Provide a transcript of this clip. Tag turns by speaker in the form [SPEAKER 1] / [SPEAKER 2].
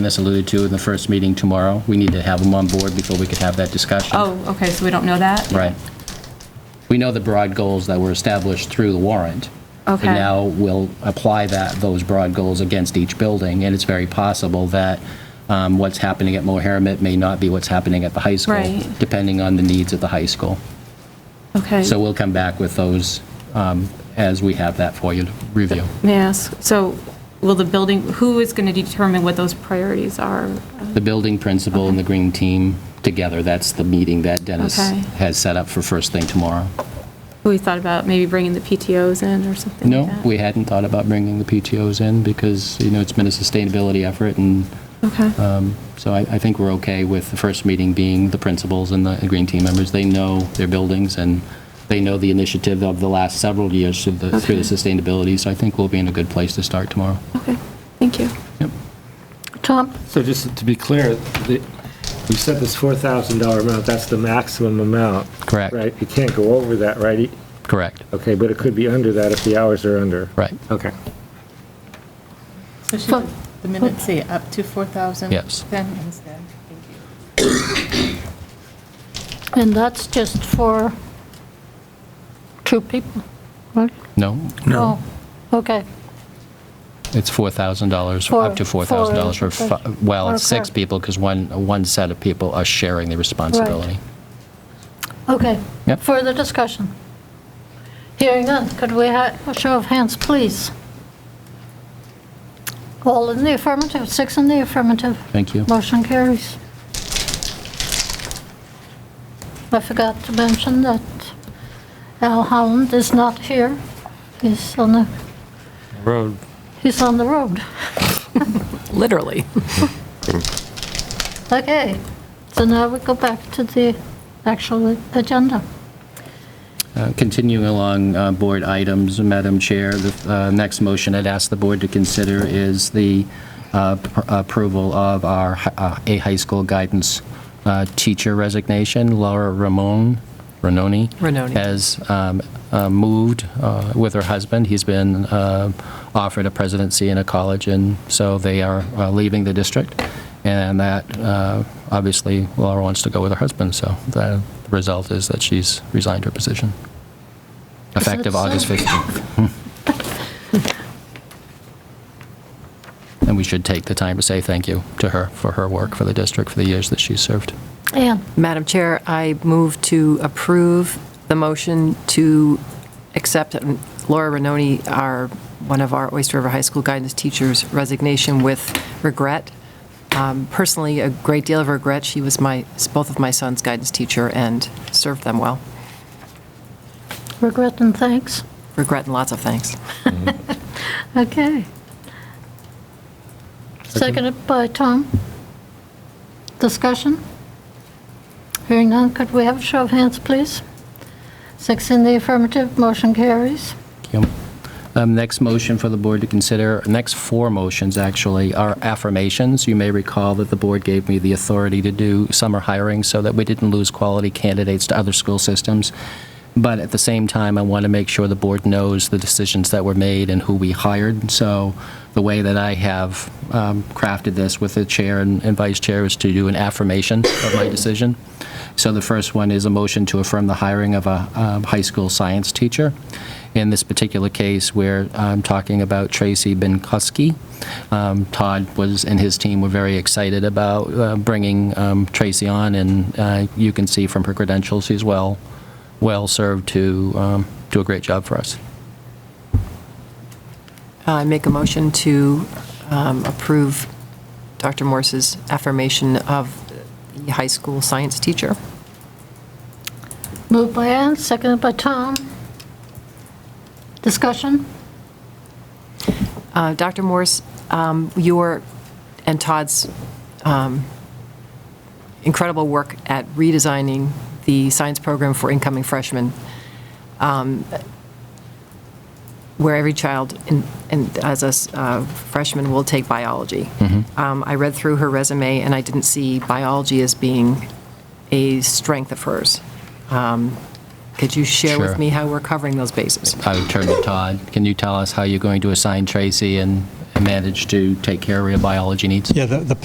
[SPEAKER 1] this alluded to in the first meeting tomorrow. We need to have them on board before we could have that discussion.
[SPEAKER 2] Oh, okay, so we don't know that?
[SPEAKER 1] Right. We know the broad goals that were established through the warrant.
[SPEAKER 2] Okay.
[SPEAKER 1] And now we'll apply that, those broad goals against each building, and it's very possible that um, what's happening at Mohammed may not be what's happening at the high school.
[SPEAKER 2] Right.
[SPEAKER 1] Depending on the needs of the high school.
[SPEAKER 2] Okay.
[SPEAKER 1] So we'll come back with those um, as we have that for you to review.
[SPEAKER 2] May I ask, so will the building, who is going to determine what those priorities are?
[SPEAKER 1] The building principal and the green team together, that's the meeting that Dennis
[SPEAKER 2] Okay.
[SPEAKER 1] has set up for first thing tomorrow.
[SPEAKER 2] We thought about maybe bringing the PTOs in or something like
[SPEAKER 1] No,
[SPEAKER 2] that?
[SPEAKER 1] we hadn't thought about bringing the PTOs in because, you know, it's been a sustainability effort, and uh,
[SPEAKER 2] Okay,
[SPEAKER 1] so I, I think we're okay with the first meeting being the principals and the green team members. They know their buildings, and they know the initiative of the last several years through the, through the
[SPEAKER 2] Okay.
[SPEAKER 1] sustainability, so I think we'll be in a good place to start tomorrow.
[SPEAKER 2] okay, thank you.
[SPEAKER 1] Yep.
[SPEAKER 2] Tom?
[SPEAKER 3] So just to be clear, the- we set this $4,000 amount, that's the maximum amount.
[SPEAKER 1] Correct.
[SPEAKER 3] Right, you can't go over that, right? E,
[SPEAKER 1] Correct.
[SPEAKER 3] Okay, but it could be under that if the hours are under.
[SPEAKER 1] Right.
[SPEAKER 3] Okay.
[SPEAKER 4] So should the minutes say up to 4,000?
[SPEAKER 1] Yes.
[SPEAKER 4] Then instead, thank you.
[SPEAKER 5] And that's just for two people, right?
[SPEAKER 1] No,
[SPEAKER 5] No. Okay,
[SPEAKER 1] it's $4,000,
[SPEAKER 5] For-
[SPEAKER 1] up to $4,000 for,
[SPEAKER 5] for-
[SPEAKER 1] fi- well,
[SPEAKER 5] for
[SPEAKER 1] it's six
[SPEAKER 5] correct.
[SPEAKER 1] people, because one, one set of people are sharing the responsibility.
[SPEAKER 5] okay.
[SPEAKER 1] Yep.
[SPEAKER 5] Further discussion? Hearing none, could we have a show of hands, please? All in the affirmative, six in the affirmative.
[SPEAKER 1] Thank you.
[SPEAKER 5] Motion carries. I forgot to mention that Al Holland is not here. He's on the,
[SPEAKER 3] Road.
[SPEAKER 5] he's on the road.
[SPEAKER 6] Literally.
[SPEAKER 5] Okay, so now we go back to the actual agenda.
[SPEAKER 1] Uh, Continuing along uh, board items, Madam Chair, the uh, next motion I'd ask the board to consider is the uh, pr- approval of our hi- uh, a high school guidance uh, teacher resignation, Laura Ramon, Renoni.
[SPEAKER 6] Renoni.
[SPEAKER 1] Has um, uh, moved uh, with her husband. He's been uh, offered a presidency in a college, and so they are uh, leaving the district. And that, uh, obviously, Laura wants to go with her husband, so the result is that she's resigned her position. Effective
[SPEAKER 5] so?
[SPEAKER 1] August 15th. And we should take the time to say thank you to her for her work for the district for the years that she's served.
[SPEAKER 5] Ann,
[SPEAKER 6] Madam Chair, I move to approve the motion to accept Laura Renoni, our, one of our Oyster River High School guidance teachers resignation with regret. Um, Personally, a great deal of regret. She was my, both of my sons' guidance teacher and served them well.
[SPEAKER 5] regret and thanks.
[SPEAKER 6] Regret and lots of thanks.
[SPEAKER 5] Okay. Seconded by Tom. Discussion? Hearing none, could we have a show of hands, please? Six in the affirmative, motion carries.
[SPEAKER 1] Thank you. Um, Next motion for the board to consider, next four motions, actually, are affirmations. You may recall that the board gave me the authority to do summer hiring so that we didn't lose quality candidates to other school systems. But at the same time, I want to make sure the board knows the decisions that were made and who we hired. So the way that I have um, crafted this with the chair and and vice chair is to do an affirmation of my decision. So the first one is a motion to affirm the hiring of a um, high school science teacher. In this particular case, we're um, talking about Tracy Binkowski. Um, Todd was, and his team were very excited about uh, bringing um, Tracy on, and uh, you can see from her credentials, she's well, well-served to um, do a great job for us.
[SPEAKER 6] I make a motion to um, approve Dr. Morse's affirmation of the high school science teacher.
[SPEAKER 5] Moved by Ann, seconded by Tom. Discussion?
[SPEAKER 6] Uh, Dr. Morse, um, your and Todd's um, incredible work at redesigning the science program for incoming freshmen, um, where every child, in- and as a s- uh, freshman, will take biology. Um, I read through her resume, and I didn't see biology as being a strength of hers. Um, Could you share
[SPEAKER 1] Sure.
[SPEAKER 6] with me how we're covering those bases?
[SPEAKER 1] I would turn to Todd. Can you tell us how you're going to assign Tracy and and manage to take care of your biology needs?
[SPEAKER 7] Yeah, the, the